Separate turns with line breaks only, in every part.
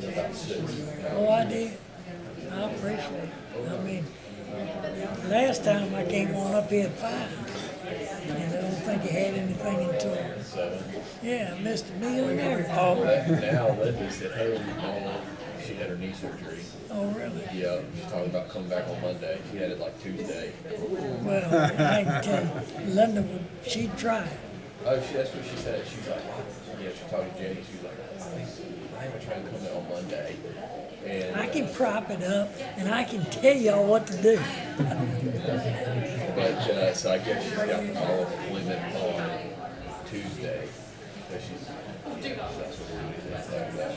Oh, I did. I appreciate it. I mean, last time I came on up here at five, and I don't think you had anything until, yeah, I missed a meal and
Well,
Oh.
everything.
that- Now, Linda's at home, um, she had her knee surgery.
Oh, really?
Yeah, she's talking about coming back on Monday. She had it like Tuesday.
Well, I can tell you, Linda would, she'd try. it.
Oh, she, that's what she said. She's like, yeah, she talked to Jenny. She was like, I'm trying to come in on Monday.
I
And,
can prop it up, and I can tell y'all what to do.
but, uh, so I guess she's got the follow-up appointment on Tuesday. So she's, so that's what we're doing. That's like that.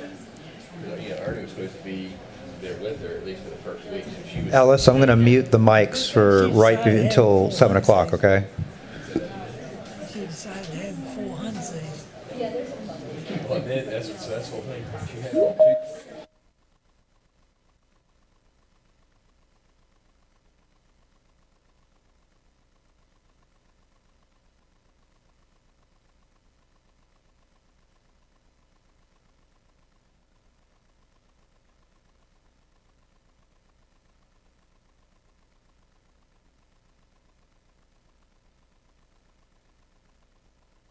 You know, yeah, Ernie was supposed to be there with her at least for the first week, so she was.
Ellis, I'm going to mute the mics for right be- until 7 o'clock, okay?
She decided to have the four Hunsays.
Well, then, that's, so that's the whole thing. She had it on Tuesday.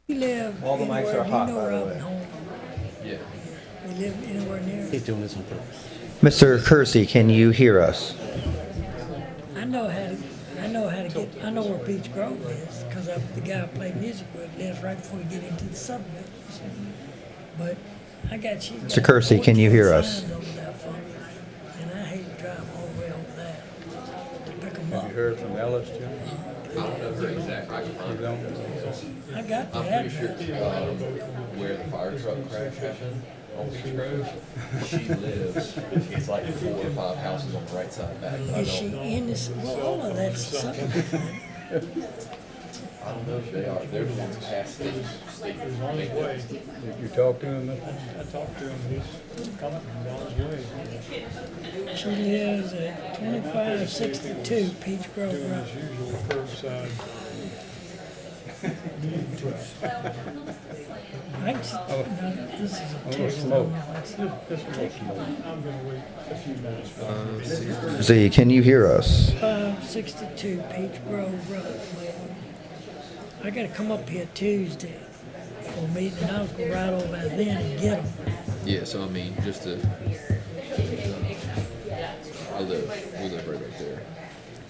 We live
All the mics
anywhere,
are hot,
you know
by
where
the
I'm
way.
home.
Yeah.
We live anywhere near.
He's doing this on purpose.
Mr. Kersey, can you hear us?
I know how to, I know how to get, I know where Peach Grove is, cause I, the guy I play music with lives right before you get into the suburbs. But I got she.
Mr. Kersey, can you hear us?
And I hate to drive all the way over there to pick 'em
Have you heard from Ellis, Jim?
I don't know her exact, I can
You
find her.
don't?
up. I got
I'm
the
pretty sure,
address.
um, where the fire truck crash happened on Beach Grove, she lives, it's like four or five houses on the right side back. but I
Is she
don't,
in this, well, all of that's something.
I don't know if they are, they're the ones past Steve, Steve, they live.
Did you talk to him? Mr.?
I talked to him, he's coming from Don's Way.
She lives at twenty-five sixty-two Peach Grove
Doing
Road.
his usual curbside.
I can, s- no, this is a
little
text.
smoke.
I'm gonna wait a few minutes. for him.
Z, can you hear us?
Five sixty-two Peach Grove Road. I gotta come up here Tuesday for a meeting, and I was gonna ride over by then and get them.
Yeah, so I mean, just to. I live, we live right up there.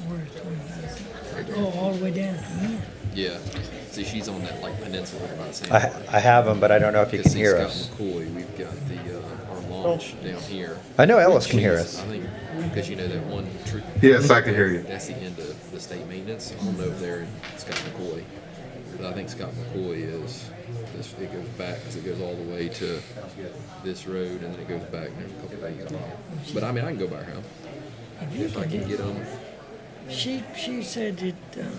Where's twenty-five? Oh, all the way down to the end.
Yeah, see, she's on that like peninsula by
I, I have him, but I don't know if you can hear us.
McCoy, we've got the, uh, our launch down here.
I know Ellis can hear
She's-
us.
I think, because you know that one tree.
Yes, I can hear you.
That's the end of the state maintenance. I don't know if they're in Scott McCoy. But I think Scott McCoy is, this, it goes back, 'cause it goes all the way to this road and then it goes back and there's a couple of things. But I mean, I can go by her.
If you
If I
could
can
do-
get them,
She, she said that, um,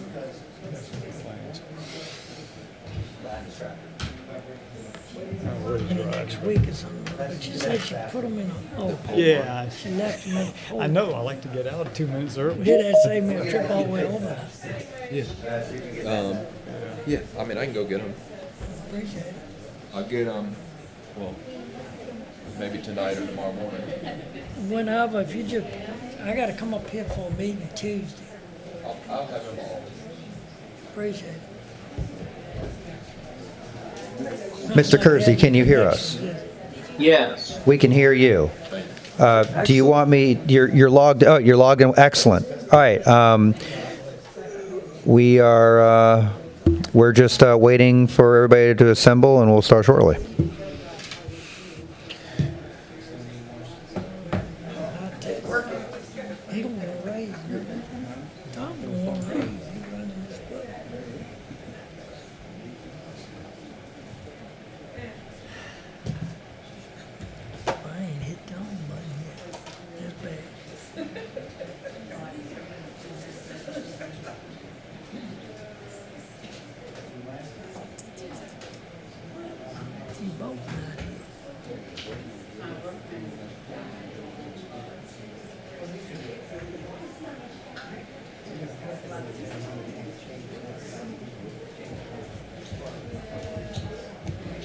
in the next week or something, but she said she put them in a, oh,
Yeah,
she left them in a
I-
hole.
I know, I like to get out two minutes early.
Did that save me a trip all the way over?
yeah, I mean, I can go get them.
Appreciate it.
I'll get them, well, maybe tonight or tomorrow morning.
Whenever, if you just, I gotta come up here for a meeting Tuesday.
I'll, I'll have them all.
Appreciate it.
Mr. Kersey, can you hear us?
Yes.
We can hear you. Uh, Do you want me, you're you're logged, oh, you're logged in, excellent. All right, um, we are, uh, we're just uh, waiting for everybody to assemble, and we'll start shortly.
He don't wanna raise nothing. Tom don't wanna raise, he running this club. I ain't hit the home button yet, that's bad. You both not here.